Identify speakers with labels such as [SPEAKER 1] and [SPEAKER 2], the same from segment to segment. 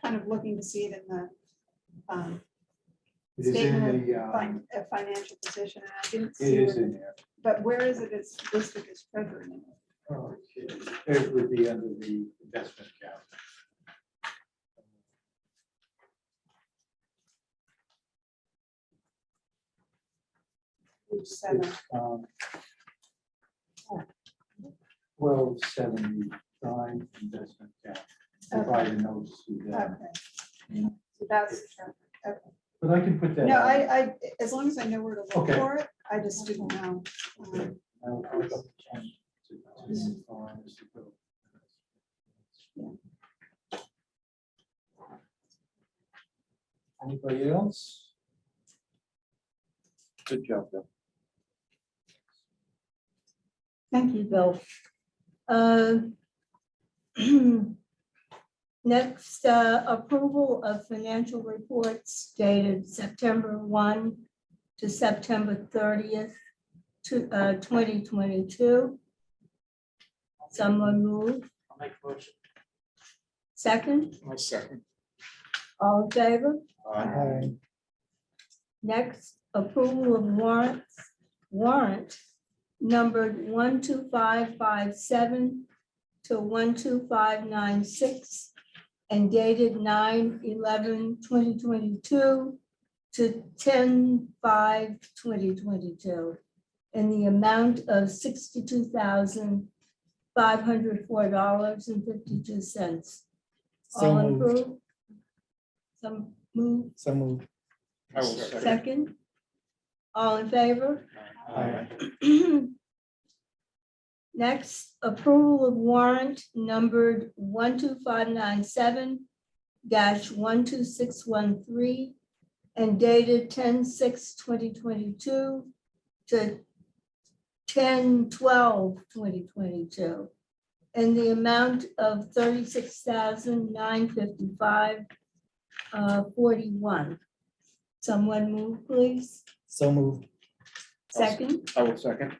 [SPEAKER 1] kind of looking to see it in the um,
[SPEAKER 2] It is in
[SPEAKER 1] Statement
[SPEAKER 2] the, uh,
[SPEAKER 1] fin- uh, financial position, and I didn't
[SPEAKER 2] it
[SPEAKER 1] see,
[SPEAKER 2] is
[SPEAKER 1] where-
[SPEAKER 2] in there.
[SPEAKER 1] but where is it, it's listed as treasurer?
[SPEAKER 2] Okay. Oh, It would be under the investment account.
[SPEAKER 1] page seven.
[SPEAKER 2] It's, um, Twelve seventy-nine investment account, provided notes to them,
[SPEAKER 1] Okay. So that's, the treasurer, okay.
[SPEAKER 2] but I can put that.
[SPEAKER 1] no,
[SPEAKER 2] out.
[SPEAKER 1] I, I, as long as I know where to look
[SPEAKER 2] Okay.
[SPEAKER 1] for it, I just didn't know. um,
[SPEAKER 2] I'll put up the change to- to define as you go. Anybody else? Good job, though.
[SPEAKER 3] Thank you, Bill. Uh, Next, uh, approval of financial reports dated September 1 to September 30th, to, uh, 2022. Someone move,
[SPEAKER 4] I'll make a motion.
[SPEAKER 3] second,
[SPEAKER 4] My second.
[SPEAKER 3] all in favor?
[SPEAKER 2] Hi.
[SPEAKER 3] Next, approval of warrants, warrant numbered one two five five seven to one two five nine six and dated 2022 to 10 2022, in the amount of sixty-two thousand five hundred four dollars and fifty-two cents.
[SPEAKER 5] So
[SPEAKER 3] All
[SPEAKER 5] moved.
[SPEAKER 3] approved? Some move?
[SPEAKER 5] So moved.
[SPEAKER 4] I will second.
[SPEAKER 3] Second. All in favor?
[SPEAKER 4] Uh,
[SPEAKER 2] Hi.
[SPEAKER 3] Next, approval of warrant numbered one two five nine seven one two six one three and dated 10-6-2022 to 10-12-2022 in the amount of thirty-six thousand nine fifty-five uh, forty-one. Someone move, please.
[SPEAKER 5] So moved.
[SPEAKER 3] Second,
[SPEAKER 4] I will second.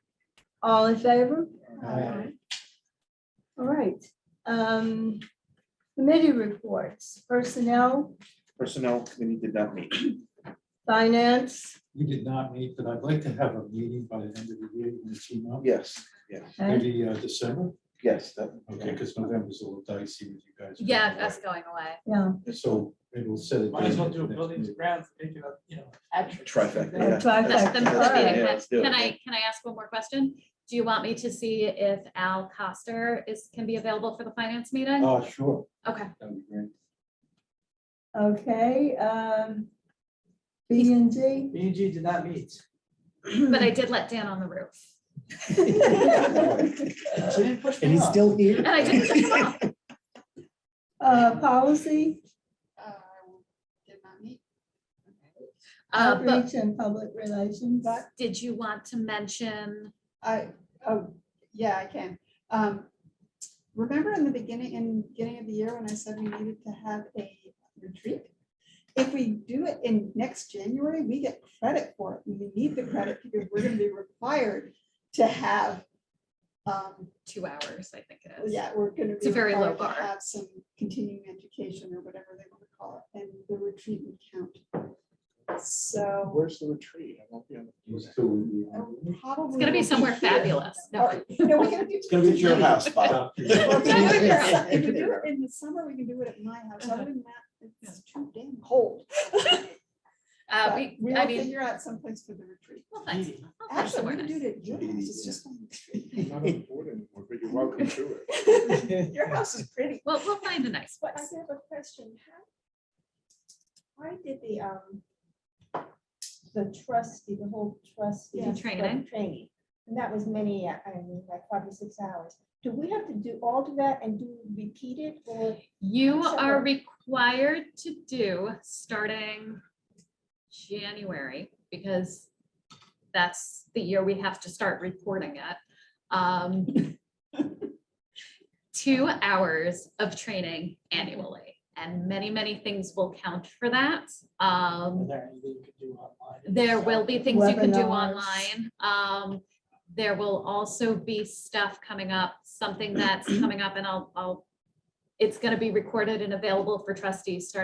[SPEAKER 3] all in favor?
[SPEAKER 2] Hi.
[SPEAKER 3] All right. um, Committee reports, personnel,
[SPEAKER 4] Personnel committee did not meet.
[SPEAKER 3] finance,
[SPEAKER 2] We did not meet, but I'd like to have a meeting by the end of the year, you can see now,
[SPEAKER 4] Yes, yes,
[SPEAKER 3] and
[SPEAKER 2] maybe uh, December,
[SPEAKER 4] yes, that,
[SPEAKER 2] okay, because November's a little dicey with you guys.
[SPEAKER 6] Yeah, that's going away.
[SPEAKER 3] yeah,
[SPEAKER 2] So maybe we'll set it.
[SPEAKER 7] Might as
[SPEAKER 2] down for
[SPEAKER 7] well do a
[SPEAKER 2] next
[SPEAKER 7] buildings
[SPEAKER 2] meeting.
[SPEAKER 7] grounds, make it a, you know.
[SPEAKER 4] trifecta.
[SPEAKER 3] A
[SPEAKER 4] yeah.
[SPEAKER 3] trifecta,
[SPEAKER 6] The- the-
[SPEAKER 4] That's-
[SPEAKER 3] all right.
[SPEAKER 6] the-
[SPEAKER 4] yeah, let's do it,
[SPEAKER 6] Can
[SPEAKER 4] yeah.
[SPEAKER 6] I, can I ask one more question? Do you want me to see if Al Coster is, can be available for the finance meeting?
[SPEAKER 2] Oh, sure,
[SPEAKER 6] Okay,
[SPEAKER 2] that'd be great.
[SPEAKER 3] okay. um, B and G.
[SPEAKER 7] B and G did not meet.
[SPEAKER 6] but I did let Dan on the roof.
[SPEAKER 7] She didn't push
[SPEAKER 5] And
[SPEAKER 7] me
[SPEAKER 5] he's
[SPEAKER 7] off.
[SPEAKER 5] still here.
[SPEAKER 6] And I didn't-
[SPEAKER 3] Policy,
[SPEAKER 1] Uh, Did not meet.
[SPEAKER 6] Uh, But
[SPEAKER 3] outreach and public relations.
[SPEAKER 6] did you want to mention,
[SPEAKER 1] I, oh, yeah, I can. Um, Remember in the beginning, in beginning of the year when I said we needed to have a retreat? If we do it in next January, we get credit for it. We need the credit because we're gonna be required to have. um,
[SPEAKER 6] two hours, I think it is?
[SPEAKER 1] Yeah, we're gonna.
[SPEAKER 6] It's a very low
[SPEAKER 1] required to
[SPEAKER 6] bar.
[SPEAKER 1] Have some continuing education or whatever they wanna call it, and the retreat would count. So
[SPEAKER 4] Where's the retreat? I won't be on the-
[SPEAKER 2] He's still in the-
[SPEAKER 1] probably.
[SPEAKER 6] It's gonna be somewhere fabulous. No,
[SPEAKER 1] Or- No, we can do.
[SPEAKER 4] It's gonna be at your house, Bob.
[SPEAKER 1] Well,
[SPEAKER 2] Yeah.
[SPEAKER 1] if we do it
[SPEAKER 6] Yeah.
[SPEAKER 1] outside- If we do it in the summer, we can do it at my house.
[SPEAKER 6] Uh-huh.
[SPEAKER 1] Other than that, it's too damn cold.
[SPEAKER 6] uh,
[SPEAKER 1] But
[SPEAKER 6] we,
[SPEAKER 1] We'll
[SPEAKER 6] I mean,
[SPEAKER 1] figure out someplace for the retreat.
[SPEAKER 6] we'll find-
[SPEAKER 7] Meeting.
[SPEAKER 6] we'll find
[SPEAKER 1] Actually,
[SPEAKER 6] somewhere
[SPEAKER 1] we can do
[SPEAKER 6] nice.
[SPEAKER 1] it at your house. It's just on the
[SPEAKER 4] I'm
[SPEAKER 1] street.
[SPEAKER 4] not on the board anymore, but you're welcome to it.
[SPEAKER 1] Your house is pretty.
[SPEAKER 6] Well, we'll find a nice
[SPEAKER 1] But I
[SPEAKER 6] place.
[SPEAKER 1] have a question. How- Why did the, um,
[SPEAKER 8] the trustee, the whole trustee.
[SPEAKER 6] The
[SPEAKER 8] like,
[SPEAKER 6] training?
[SPEAKER 8] Training, and that was many, I mean, like five or six hours. Do we have to do all of that and do repeat it or?
[SPEAKER 6] You
[SPEAKER 8] Sure.
[SPEAKER 6] are required to do starting January, because that's the year we have to start reporting it. um, Two hours of training annually, and many, many things will count for that.
[SPEAKER 7] Are
[SPEAKER 6] Um,
[SPEAKER 7] there anything you could do online?
[SPEAKER 6] there will be things you can do
[SPEAKER 3] Webinars.
[SPEAKER 6] online. Um, there will also be stuff coming up, something that's coming up and I'll, I'll, it's gonna be recorded and available for trustees starting